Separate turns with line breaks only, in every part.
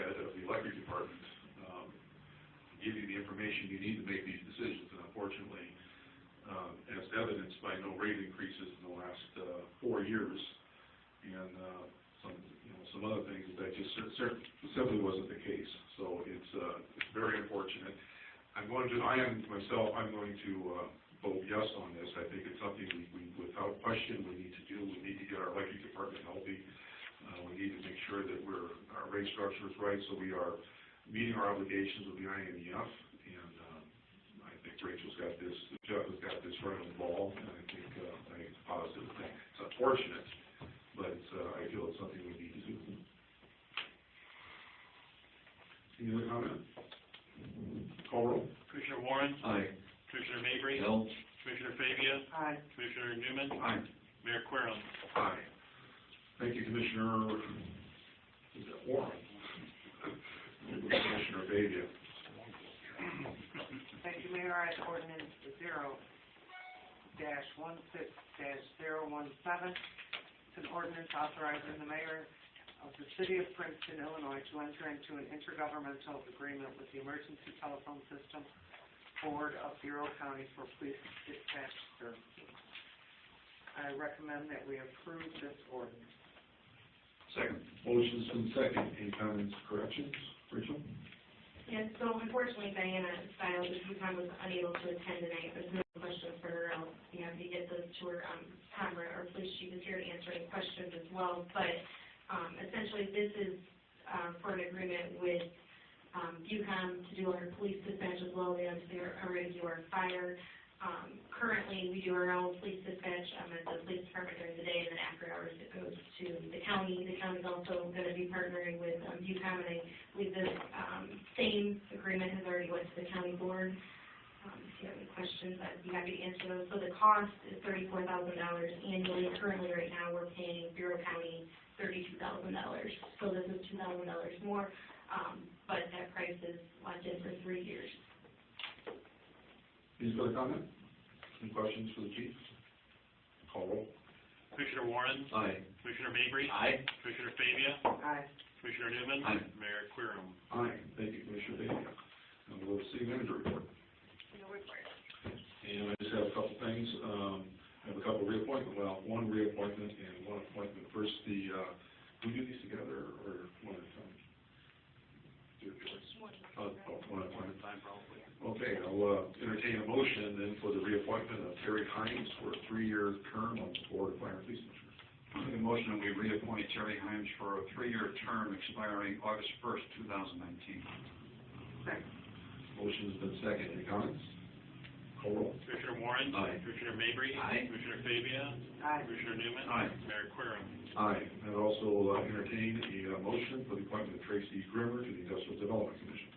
electric department, um, to give you the information you need to make these decisions, and unfortunately, um, as evidenced by no rate increases in the last, uh, four years, and, uh, some, you know, some other things, that just cer- cer- simply wasn't the case, so it's, uh, it's very unfortunate. I'm going to, I am, myself, I'm going to, uh, vote yes on this, I think it's something we, we, without question, we need to do, we need to get our electric department healthy, uh, we need to make sure that we're, our rate structure is right, so we are meeting our obligations with the IMEF. And, um, I think Rachel's got this, Jeff has got this right on the ball, and I think, uh, I think it's a positive thing. It's unfortunate, but, uh, I feel it's something we need to do. Any other comment? Call roll.
Commissioner Warren,
Aye.
Commissioner Mabry,
L.
Commissioner Fabia,
Aye.
Commissioner Newman,
Aye.
Mayor Querem.
Aye. Thank you, Commissioner Warren. Commissioner Bavia.
Thank you, Mayor. I have ordinance zero dash one six dash zero one seven. It's an ordinance authorizing the mayor of the city of Princeton, Illinois, to enter into an intergovernmental agreement with the Emergency Telephone System Board of Bureau County for Police Dispatch Services. I recommend that we approve this ordinance.
Second.
Motion's been second. Any comments, corrections? Rachel?
Yes, so unfortunately Diana filed this time was unable to attend tonight. There's no question for her. I'll be happy to get those to her, um, Tamara, our police chief is here to answer any questions as well. But, um, essentially this is, uh, for an agreement with, um, Bucom to do our police dispatch as well. They obviously are- already do our fire. Um, currently, we do our own police dispatch, um, at the police department during the day and then after hours it goes to the county. The county's also gonna be partnering with, um, Bucom and I believe this um, same agreement has already went to the county board. Um, If you have any questions, I'd be happy to answer those. So the cost is thirty-four thousand dollars annually. Currently, right now, we're paying Bureau County thirty-two thousand dollars. So this is two thousand dollars more, um, but that price is locked in for three years.
Any further comment? Any questions for the chief? Call roll.
Commissioner Warren,
Aye.
Commissioner Mabry,
Aye.
Commissioner Fabia,
Aye.
Commissioner Newman.
Aye.
Mayor Querem.
Aye. Thank you, Commissioner Bavia. And we'll go to city manager report. And I just have a couple things. Um, I have a couple reappointment, well, one reappointment and one appointment. First, the, uh, we do these together or one at a time? Do it yours. Oh, oh, one at a time. Okay, I'll uh, entertain a motion then for the reappointment of Terry Hines for a three-year term on the Board of Fire and Police Commissioners.
Make a motion that we reappoint Terry Himes for a three-year term expiring August first, two thousand nineteen.
Second.
Motion's been second. Any comments? Call roll.
Commissioner Warren.
Aye.
Commissioner Mabry.
Aye.
Commissioner Fabia,
Aye.
Commissioner Newman.
Aye.
Mayor Querem.
Aye. I'd also uh, entertain a uh, motion for the appointment of Tracy Grimmer to the Industrial Development Commission.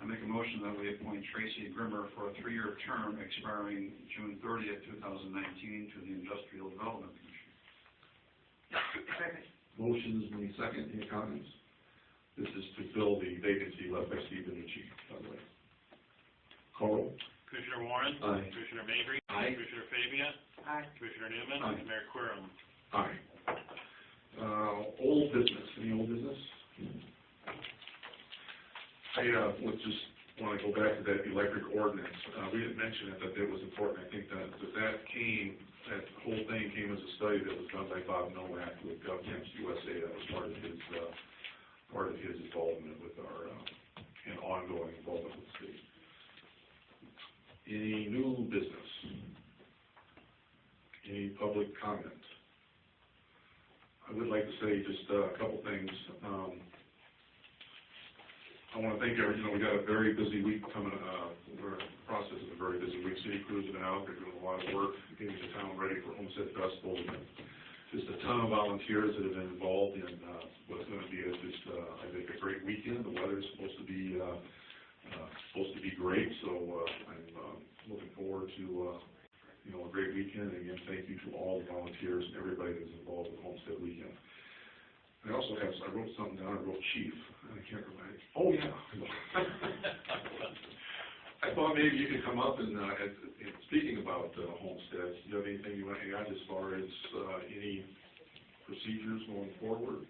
I make a motion that we appoint Tracy Grimmer for a three-year term expiring June thirtieth, two thousand nineteen, to the Industrial Development Commission.
Second.
Motion's been second. Any comments? This is to fill the vacancy left by Steve Nucci, by the way. Call roll.
Commissioner Warren.
Aye.
Commissioner Mabry.
Aye.
Commissioner Fabia,
Aye.
Commissioner Newman.
Aye.
Mayor Querem.
Aye. Uh, old business, any old business? I, uh, would just wanna go back to that electric ordinance, uh, we didn't mention it, but it was important, I think that, that that came, that whole thing came as a study that was done by Bob Nowak with GovCamps USA, that was part of his, uh, part of his involvement with our, uh, and ongoing involvement with the state. Any new business? Any public comment? I would like to say just uh, a couple things. Um, I want to thank everyone, you know, we got a very busy week coming, uh, we're in the process of a very busy week. City crews have been out, they're doing a lot of work, getting the town ready for Homestead Festival. We have Just a ton of volunteers that have been involved in uh, what's going to be a- just, uh, I think, a great weekend. The weather's supposed to be, uh, uh, supposed to be great, so uh, I'm um, looking forward to, uh, you know, a great weekend. And again, thank you to all the volunteers and everybody that's involved with Homestead Weekend. I also have, I wrote something down, I wrote chief, and I can't remember. Oh, yeah. I thought maybe you could come up and, uh, and, and speaking about uh, homesteads, do you have anything you want to add as far as, uh, any procedures going forward?